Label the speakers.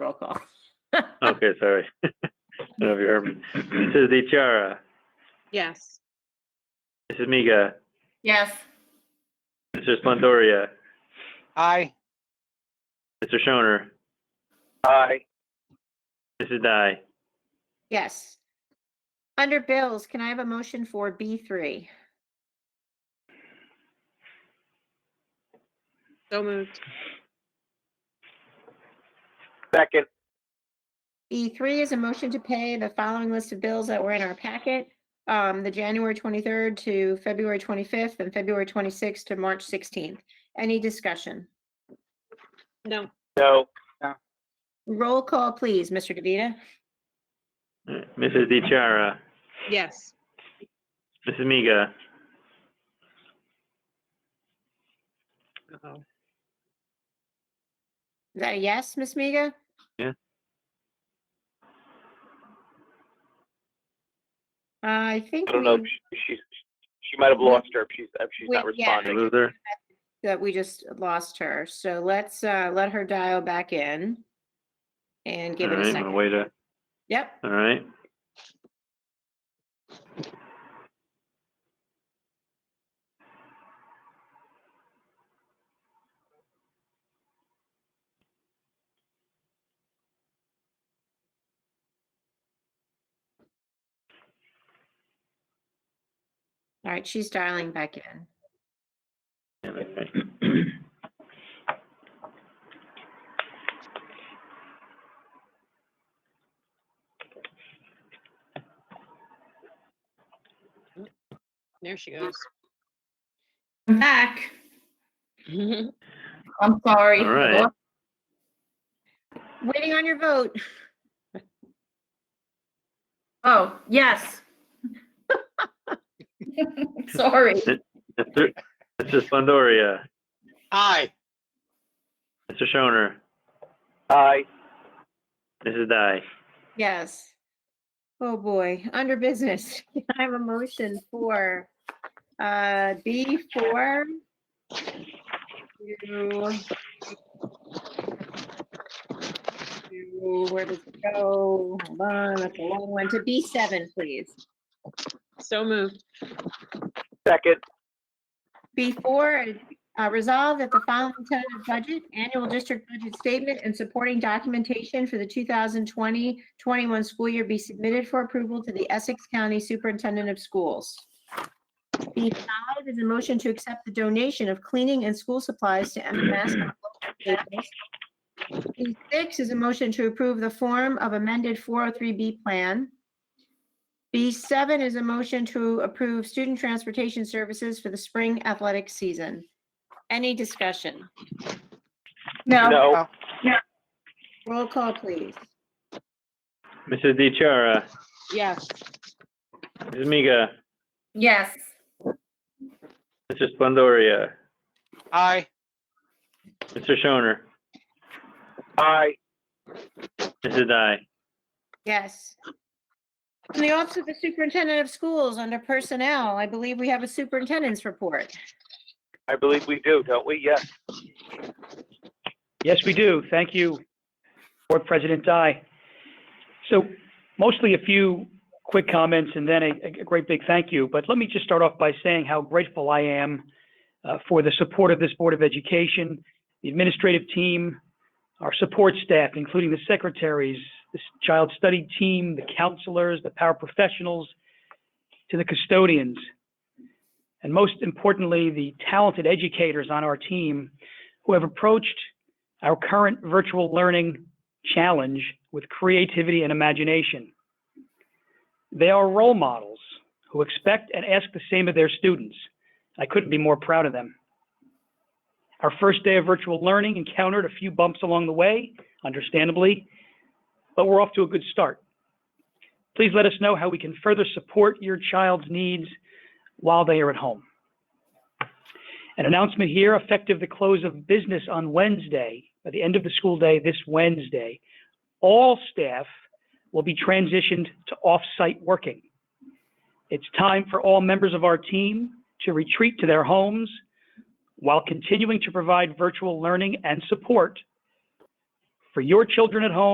Speaker 1: roll call.
Speaker 2: Okay, sorry. I don't know if you heard me. Mrs. DeChara,
Speaker 1: Yes.
Speaker 2: Mrs. Miga,
Speaker 3: Yes.
Speaker 2: Mr. Splendoria,
Speaker 4: Aye.
Speaker 2: Mr. Shoner,
Speaker 4: Aye.
Speaker 2: Mrs. Dye.
Speaker 1: Yes. Under bills, can I have a motion for B three?
Speaker 5: So moved.
Speaker 4: Second.
Speaker 1: B three is a motion to pay the following list of bills that were in our packet. Um, the January twenty-third to February twenty-fifth and February twenty-sixth to March sixteenth. Any discussion?
Speaker 5: No.
Speaker 4: No.
Speaker 1: Roll call, please, Mr. DeVita.
Speaker 2: Mrs. DeChara,
Speaker 5: Yes.
Speaker 2: Mrs. Miga,
Speaker 5: Uh-oh.
Speaker 1: Is that a yes, Ms. Miga?
Speaker 2: Yeah.
Speaker 1: I think.
Speaker 4: I don't know. if
Speaker 1: we-
Speaker 4: she- She's, she might have lost her if she's, if she's not
Speaker 1: Wait, yeah.
Speaker 4: responding.
Speaker 2: Luther,
Speaker 1: that we just lost her. So let's uh, let her dial back in and
Speaker 2: all
Speaker 1: give it a
Speaker 2: right, I'm gonna
Speaker 1: second.
Speaker 2: wait a,
Speaker 1: Yep.
Speaker 2: all right.
Speaker 1: All right. She's dialing back in.
Speaker 2: Yeah, okay.
Speaker 5: There she goes.
Speaker 3: I'm back. I'm sorry.
Speaker 2: All right.
Speaker 1: Waiting on your vote.
Speaker 3: Oh, yes. Sorry.
Speaker 2: Mr. Mrs. Splendoria,
Speaker 4: Aye.
Speaker 2: Mr. Shoner,
Speaker 4: Aye.
Speaker 2: Mrs. Dye.
Speaker 1: Yes. Oh boy. Under business, I have a motion for uh, B4 to, to where does it go? Hold on. That's a long one. To B7, please.
Speaker 5: So moved.
Speaker 4: Second.
Speaker 1: Before, uh, resolve that the following tentative budget, annual district budget statement and supporting documentation for the 2020-21 school year be submitted for approval to the Essex County Superintendent of Schools. B5 is a motion to accept the donation of cleaning and school supplies to MMS. B6 is a motion to approve the form of amended 403B plan. B7 is a motion to approve student transportation services for the spring athletic season. Any discussion?
Speaker 3: No,
Speaker 4: No.
Speaker 1: Roll call, please.
Speaker 2: Mrs. DeChara,
Speaker 5: Yes.
Speaker 2: Mrs. Miga,
Speaker 3: yes.
Speaker 2: Mr. Splendoria,
Speaker 4: Aye.
Speaker 2: Mr. Shoner,
Speaker 4: Aye.
Speaker 2: Mrs. Dye.
Speaker 1: Yes. From the Office of the Superintendent of Schools, under Personnel, I believe we have a superintendent's report.
Speaker 4: I believe we do, don't we? Yes.
Speaker 6: Yes, we do. Thank you, Board President Dye. So mostly a few quick comments and then a, a great big thank you. But let me just start off by saying how grateful I am uh, for the support of this Board of Education, the administrative team, our support staff, including the secretaries, the s- child study team, the counselors, the paraprofessionals, to the custodians. And most importantly, the talented educators on our team who have approached our current virtual learning challenge with creativity and imagination. They are role models who expect and ask the same of their students. I couldn't be more proud of them. Our first day of virtual learning encountered a few bumps along the way, understandably, but we're off to a good start. Please let us know how we can further support your child's needs while they are at home. An announcement here effective the close of business on Wednesday, at the end of the school day this Wednesday, all staff will be transitioned to off-site working. It's time for all members of our team to retreat to their homes while continuing to provide virtual learning and support for your children at home